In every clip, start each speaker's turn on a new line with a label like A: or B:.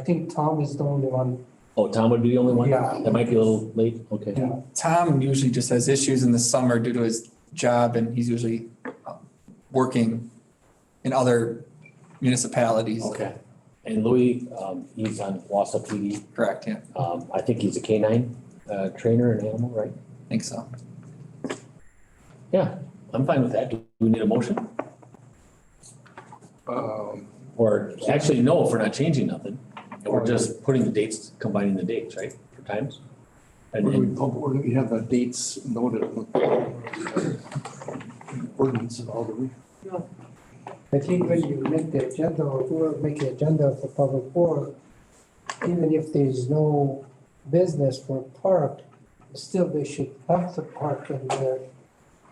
A: I think Tom is the only one.
B: Oh, Tom would be the only one?
A: Yeah.
B: That might be a little late, okay.
A: Yeah.
C: Tom usually just has issues in the summer due to his job and he's usually um, working in other municipalities.
B: Okay. And Louis, um, he's on Wausau PD.
C: Correct, yeah,
B: Um, I think he's a canine, uh, trainer and animal, right?
C: I think so.
B: Yeah, I'm fine with that. Do we need a motion?
D: Um,
B: Or actually, no, if we're not changing nothing. And we're just putting the dates, combining the dates, right, for times? And
D: Where do
B: then,
D: we, pub- where do we have the dates noted? Ordinance of all the, re-
A: I think when you make the agenda, or whoever make the agenda for public work, even if there's no business for park, still they should have the park in there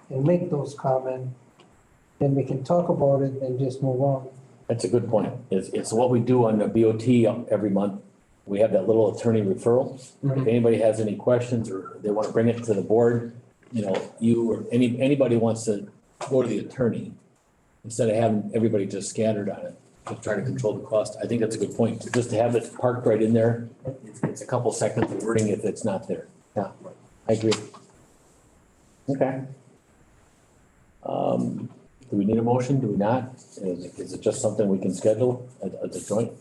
A: and make those comments. Then we can talk about it and just move on.
B: that's a good point. It's, it's what we do on the BOT every month. We have that little attorney referral. If anybody has any questions or they want to bring it to the board, you know, you or any, anybody wants to go to the attorney instead of having everybody just scattered on it, to try to control the cost. I think that's a good point. Just to have it parked right in there, it's, it's a couple seconds of wording if it's not there. Yeah, I agree. Okay. Um, do we need a motion? Do we not? Is, is it just something we can schedule at, at the joint?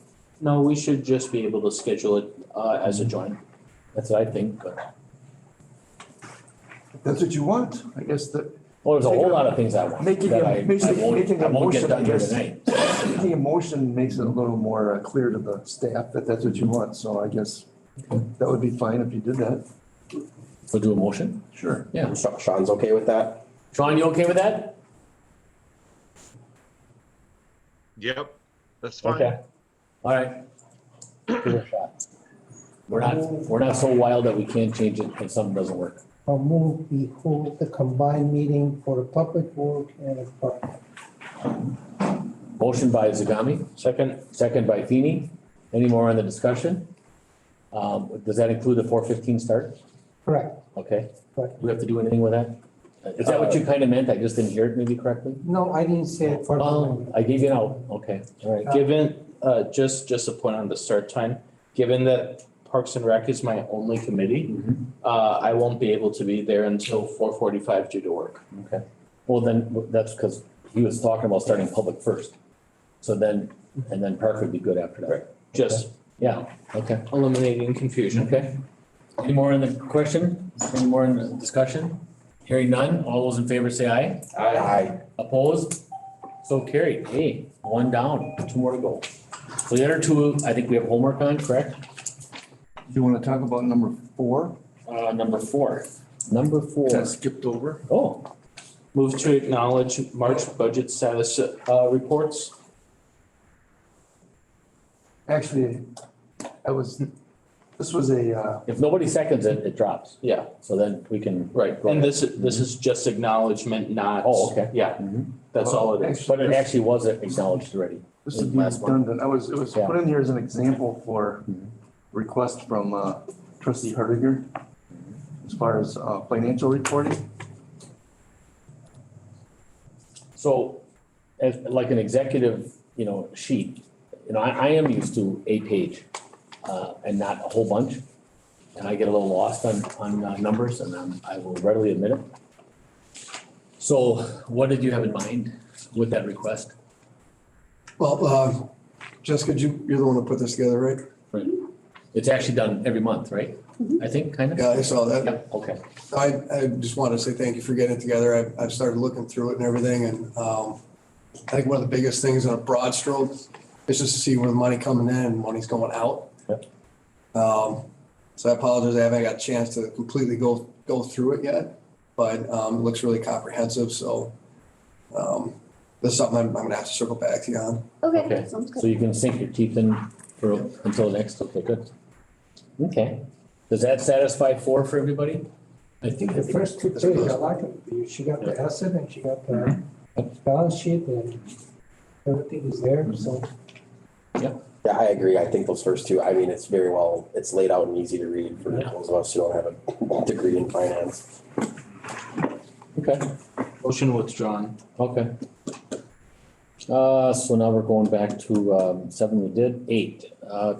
E: No, we should just be able to schedule it uh as a joint.
B: That's what I think, but,
D: that's what you want, I guess that,
B: well, there's a whole lot of things I want.
D: Making a-
B: that I- I
D: making-
B: won't-
D: making a
B: I won't get
D: motion, I
B: done here
D: guess.
B: tonight.
D: the emotion makes it a little more uh, clear to the staff that that's what you want, so I guess that would be fine if you did that.
B: We'll do a motion.
D: Sure.
B: Yeah.
F: Sha- Sean's okay with that?
B: Sean, you okay with that?
G: Yep, that's fine.
B: Okay. All right. Give it a shot. We're not, we're not so wild that we can't change it if something doesn't work.
A: Or move, we hold the combined meeting for public work and a park.
B: Motion by Zagami,
E: Second,
B: second by Feeny. Any more on the discussion? Um, does that include the four fifteen start?
A: Correct.
B: Okay. Do
A: Correct.
B: we have to do anything with that? Is that what you kind of meant? I just didn't hear it maybe correctly?
A: No, I didn't say it for.
B: Oh, I gave it out. Okay, all right.
E: given, uh just just a point on the start time, given that Parks and Rec is my only committee, uh I won't be able to be there until four forty-five due to work.
B: Okay, well, then, that's because he was talking about starting public first. So then, and then Park would be good after that.
E: Just
B: Yeah, okay,
E: eliminating confusion.
B: okay. Any more in the question? Any more in the discussion? Hearing none, all those in favor say aye.
F: Aye.
B: Opposed? So carried. Hey, one down, two more to go. So the other two, I think we have homework on, correct?
D: You want to talk about number four?
B: Uh, number four. Number four.
D: That skipped over.
B: Oh,
E: Move to acknowledge March budget status uh reports.
D: Actually, I was, this was a, uh,
B: if nobody seconds it, it drops.
E: Yeah,
B: So then we can.
E: right.
B: Go
E: And
B: ahead. Mm-hmm.
E: this this is just acknowledgement, not.
B: Oh, okay.
E: Yeah,
B: Mhm.
E: that's all it is.
B: But it
D: actually,
B: actually was acknowledged already.
D: this would be
B: Last one.
D: redundant. I was, it was
B: Yeah.
D: put in here as an example for
B: Mhm.
D: request from uh, trustee Hardinger as far as uh, financial reporting.
B: So as like an executive, you know, sheet, you know, I, I am used to a page uh, and not a whole bunch. And I get a little lost on, on uh, numbers and um, I will readily admit it. So what did you have in mind with that request?
H: Well, uh, Jessica, you, you're the one who put this together, right?
B: It's actually done every month, right?
I: Mm-hmm.
B: I think, kind of?
H: Yeah, I saw that.
B: Yep, okay.
H: I, I just wanted to say thank you for getting it together. I've, I've started looking through it and everything, and, um, I think one of the biggest things on a broad stroke is just to see where the money coming in and money's going out.
B: Yep.
H: Um, so I apologize, I haven't got a chance to completely go, go through it yet, but, um, it looks really comprehensive, so, um, this is something I'm, I'm gonna have to circle back to you on.
B: Okay.
I: Okay, sounds
B: So
I: good.
B: you can sink your teeth in for, until next, okay, good. Okay, does that satisfy four for everybody? I think
A: The first two pages, I like it. You- She got the asset and she got the balance sheet and everything is there, so.
F: Yeah, I agree. I think those first two, I mean, it's very well, it's laid out and easy to read for those of us who don't have a degree in finance.
B: Okay,
E: Motion withdrawn.
B: okay. Uh, so now we're going back to, um, seven we did, eight, uh,